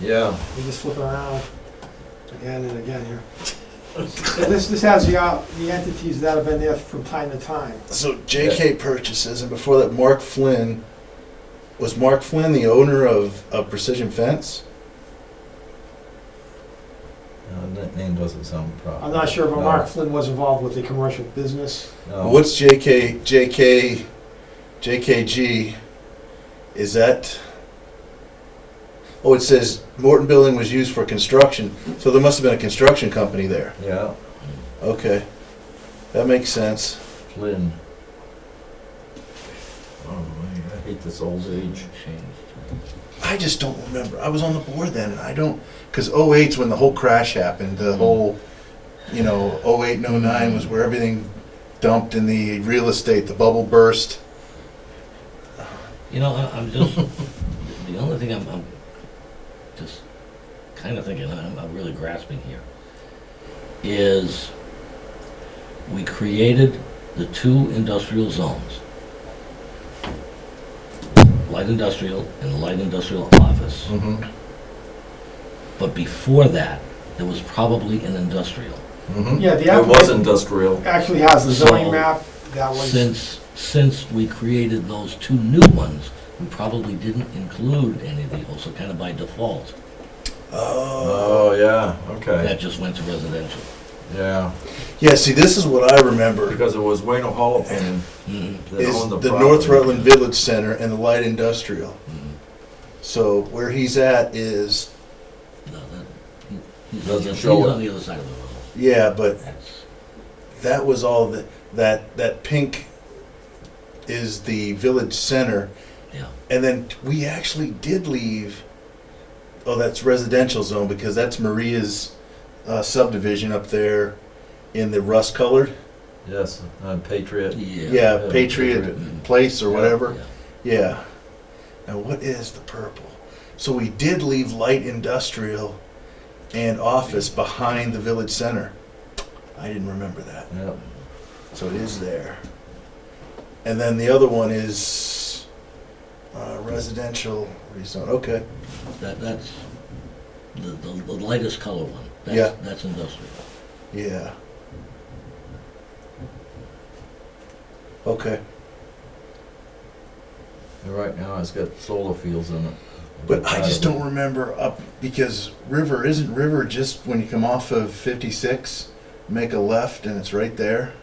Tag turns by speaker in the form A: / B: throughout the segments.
A: Yeah.
B: We just flip it around again and again here. So this, this has the, uh, the entities that have been there from time to time.
C: So J.K. purchases, and before that, Mark Flynn was Mark Flynn the owner of, of Precision Fence?
A: No, that name doesn't sound proper.
B: I'm not sure, but
A: No,
B: Mark Flynn was involved with the commercial business.
A: No.
C: What's J.K. J.K. J.K.G. Is that? Oh, it says Morton Building was used for construction, so there must have been a construction company there.
A: Yeah,
C: Okay, that makes sense.
A: Flynn. Oh, man, I hate this old age.
C: I just don't remember. I was on the board then, and I don't because 08's when the whole crash happened.
A: Mm.
C: The whole, you know, 08 and 09 was where everything dumped in the real estate. The bubble burst.
D: You know, I- I'm just, the only thing I'm, I'm just kind of thinking, I'm, I'm really grasping here, is we created the two industrial zones. Light industrial and light industrial office.
C: Mm-hmm.
D: But before that, there was probably an industrial.
C: Mm-hmm.
B: Yeah, the
A: It was
B: applicant
A: industrial.
B: actually has the zoning
D: So,
B: map that was,
D: Since, since we created those two new ones, we probably didn't include any of the, also kind of by default.
C: Oh.
A: Oh, yeah, okay,
D: That just went to residential.
A: yeah,
C: Yeah. See, this is what I remember.
A: because it was Wayne O'Holohan
D: Mhm.
A: that
C: Is
A: owned the property.
C: the North Rutland Village Center and the light industrial. So where he's at is
D: No, that, he- he's, on
A: Doesn't
D: the- he's
A: show it.
D: on the other side of the road.
C: yeah, but
D: That's,
C: that was all that that that pink is the village center
D: yeah.
C: And then we actually did leave. Oh, that's residential zone because that's Maria's uh, subdivision up there in the rust colored.
A: Yes, on Patriot.
D: Yeah.
C: Yeah,
A: yeah,
C: Patriot
D: Patriot.
C: Place or
A: Yeah,
C: whatever.
D: Mm-hmm. Yeah.
C: Yeah. Now, what is the purple? So we did leave light industrial and office behind the village center. I didn't remember that.
A: Yep.
C: So it is there. And then the other one is uh, residential rezone. Okay.
D: That, that's the, the, the lightest color one. That's,
C: Yeah.
D: That's industrial.
C: Yeah. Okay,
A: And right now, it's got solar fields in it.
C: but I just don't remember up, because River, isn't River just when you come off of fifty-six, make a left and it's right there?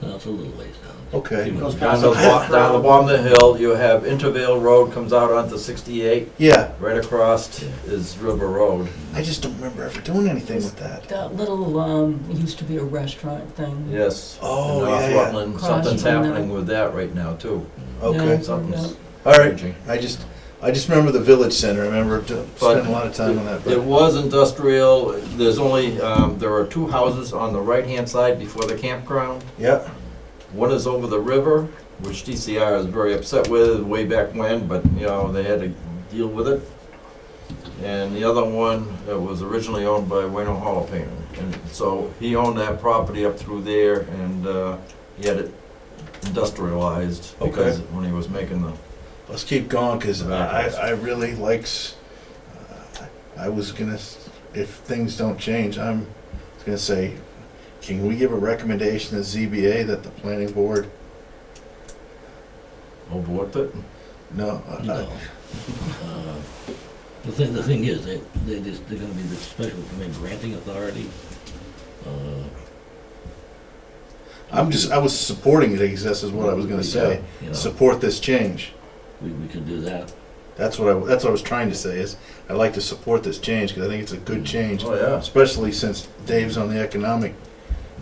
D: No, it's a little ways down.
C: Okay,
B: Goes
A: Down
B: past
A: the,
B: the
A: bo-
B: half
A: down the
B: round.
A: bottom of the hill, you have Intervale Road comes out onto sixty-eight,
C: yeah,
A: right across is River Road.
C: I just don't remember ever doing anything with that.
E: That little, um, it used to be a restaurant thing.
A: Yes.
C: Oh,
A: In North
C: yeah, yeah.
A: Rutland,
E: Across
A: something's
E: from
A: happening with that right now, too.
C: Okay,
E: Yeah.
A: Something's
C: all right,
A: changing.
C: I just, I just remember the village center, I remember to- spending a lot of time on that,
A: It
C: but,
A: was industrial, there's only, um, there are two houses on the right-hand side before the campground.
C: yeah,
A: One is over the river, which DCR is very upset with way back when, but, you know, they had to deal with it. And the other one that was originally owned by Wayno Holopainen. And so he owned that property up through there and, uh, he had it industrialized
C: Okay.
A: because when he was making the,
C: let's keep going, cause I, I really likes, uh, I was gonna, s- if things don't change, I'm gonna say, can we give a recommendation to ZBA that the planning board,
A: overlooked it.
C: no, uh,
D: No. Uh, The thing, the thing is, they, they just, they're gonna be the special permit granting authority. Uh,
C: I'm just, I was supporting it, I guess that's what I was gonna say.
D: You know,
C: Support this change.
D: we, we could do that.
C: That's what I, that's what I was trying to say, is I'd like to support this change, because I think it's a good change,
A: Oh, yeah.
C: especially since Dave's on the economic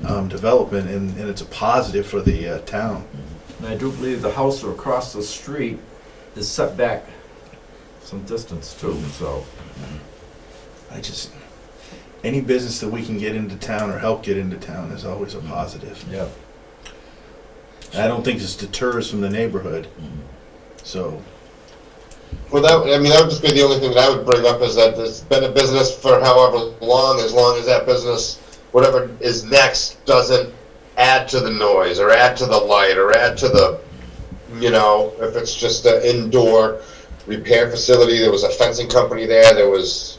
C: um, development, and, and it's a positive for the uh, town.
D: Mm-hmm.
A: And I do believe the house across the street is set back some distance too, so.
C: I just, any business that we can get into town or help get into town is always a positive.
A: Yeah.
C: I don't think this deters from the neighborhood,
D: Mhm.
C: so,
F: Well, that, I mean, that would just be the only thing that I would bring up is that it's been a business for however long, as long as that business, whatever is next, doesn't add to the noise or add to the light or add to the, you know, if it's just an indoor repair facility, there was a fencing company there, there was,